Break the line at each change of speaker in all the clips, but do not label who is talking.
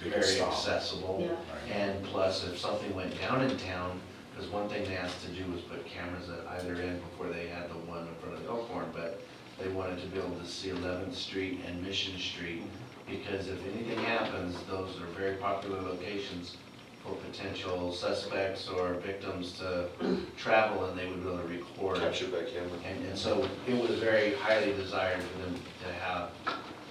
very
Stop.
accessible.
Yeah.
And plus, if something went down in town, because one thing they asked to do was put cameras at either end before they had the one in front of Elkhorn, but they wanted to be able to see Eleventh Street and Mission Street, because if anything happens, those are very popular locations for potential suspects or victims to travel, and they would be able to record.
Capture by camera.
And, and so it was very highly desired for them to have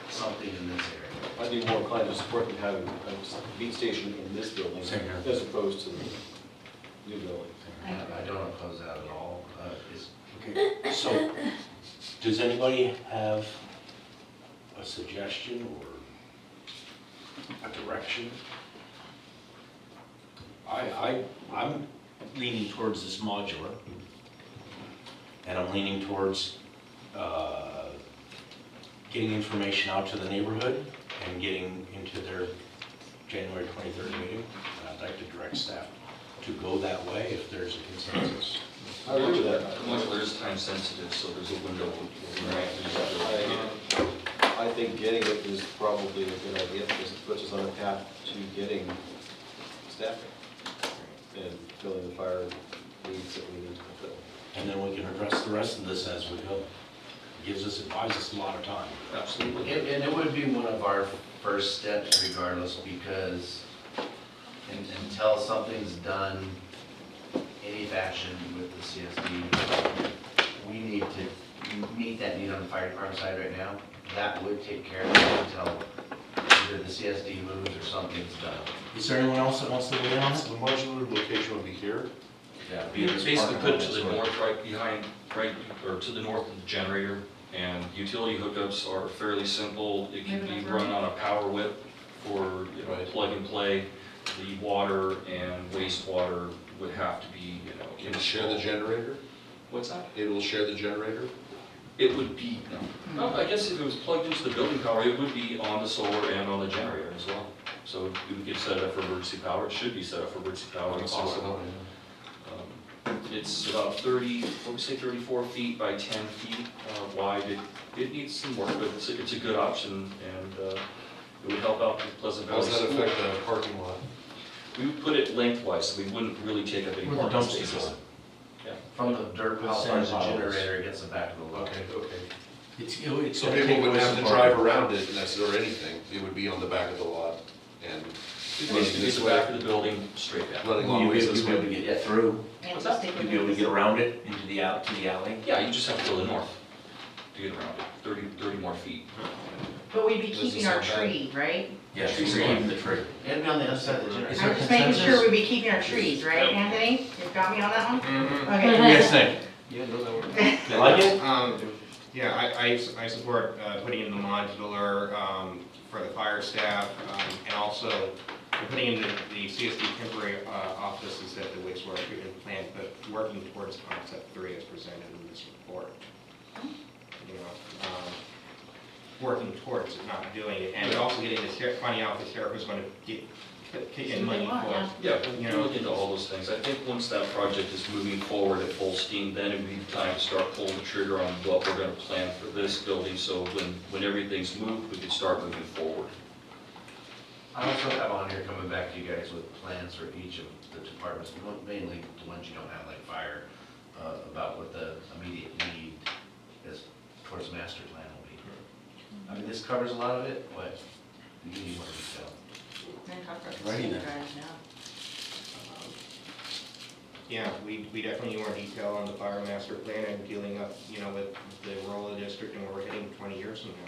something in this area.
I'd be more inclined to support them having a beat station in this building
Same here.
as opposed to the new building.
I-
I don't oppose that at all. Uh, it's
Okay, so, does anybody have a suggestion or a direction? I, I, I'm leaning towards this modular, and I'm leaning towards, uh, getting information out to the neighborhood and getting into their January twenty-third meeting. And I'd like to direct staff to go that way if there's a consensus.
I agree with that.
Modular is time sensitive, so there's a window.
I I think getting it is probably a good idea because it puts us on a path to getting staffing and filling the fire needs that we need to fulfill.
and then we can address the rest of this as we go. Gives us, it buys us a lot of time.
And
Absolutely.
and it would be one of our first steps regardless, because un- until something's done, any action with the CSD, we need to meet that need on the fire department side right now. That would take care of it until either the CSD moves or something's done.
Is there anyone else that wants to weigh in on it?
The modular location would be here.
Yeah.
Be basically put to the north, right behind, right, or to the north of the generator, and utility hookups are fairly simple. It can be run on a power whip for, you know, plug and play. The water and wastewater would have to be, you know.
Can share the generator?
What's that?
It will share the generator?
It would be, no, I guess if it was plugged into the building power, it would be on the solar and on the generator as well. So it would get set up for emergency power, it should be set up for emergency power if possible. Um, It's about 30, what we say, 34 feet by 10 feet uh, wide. It, it needs some work, but it's, a- it's a good option and uh, it would help out with Pleasant
How
Valley
does that
School.
affect the parking lot?
We would put it lengthwise, so we wouldn't really take up any
Where the
parking
dumpsters
spaces.
From the dirt pile,
Sand
the
piles.
generator it gets the back of the lot.
Okay, okay.
It's, it's
So
gonna take
people
away
wouldn't have
some
to
part.
drive around it, and that's, or anything, it would be on the back of the lot, and
It basically
This
be the
way.
back of the building straight down.
running long
You'd be
ways
able
this
you'd be able to
way.
get it through,
Yeah,
What's
just
that?
take
you'd be able to get around it into the out, to the alley.
Yeah, you just have to go to the north to get around it, 30, 30 more feet.
But we'd be
This is
keeping our
not bad.
tree, right?
Yes,
Trees
we're
are-
keeping the tree.
It'd be on the other side of the generator.
Is there
I'm just making
consensus?
sure we'd be keeping our trees, right, Anthony? You've got me on that one?
Mm-hmm.
Okay.
Yes, thank
Yeah, no, that works.
you. You like it?
Um, yeah, I, I, s- I support, uh, putting in the modular, um, for the fire staff, um, and also putting in the, the CSD temporary, uh, offices at the wastewater treatment plant, but working towards concept three as presented in this report. You know, um, working towards it, not doing it, and also getting the, ser- finding out if the sheriff is gonna get, kick in money
Something like
for it.
that.
Yeah,
You
we'll
know.
look into all those things. I think once that project is moving forward at full steam, then it would be time to start pulling the trigger on what we're gonna plan for this building, so when, when everything's moved, we can start moving forward.
I also have on here coming back to you guys with plans for each of the departments, mainly the ones you don't have, like fire, uh, about what the immediate need is towards master plan will be. I mean, this covers a lot of it, but you need more detail.
Then talk about the
Righty then.
guys now.
Yeah, we, we definitely need more detail on the fire master plan and dealing up, you know, with the role of the district and where we're heading twenty years from now.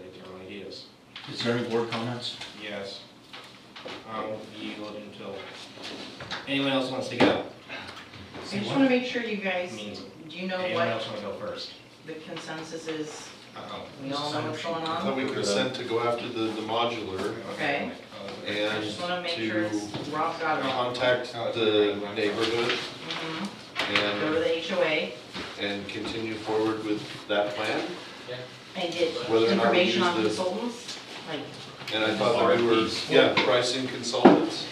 Like general ideas,
Is there any board comments?
yes. Um, you yield until, anyone else wants to go?
I just wanna make sure you guys,
I mean,
do you know
Anyone
what
else wanna go first?
the consensus is?
Uh-oh.
We all know what's going
I thought
on?
we consent to go after the, the modular
Okay.
Uh,
I
and
just wanna make sure it's,
to
Rob got it all.
contact the neighborhood
Mhm. Go to
and,
the HOA
and continue forward with that plan.
and get
Whether or not we
information
use
on
the-
consultants, like,
And I thought that we were,
RFPs.
yeah, pricing consultants,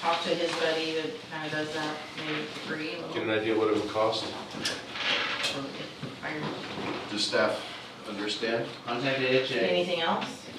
talk to his buddy that kinda does that, maybe free, a little.
get an idea what it would cost.
or if I-
Does staff understand?
Contact the HA.
Anything else?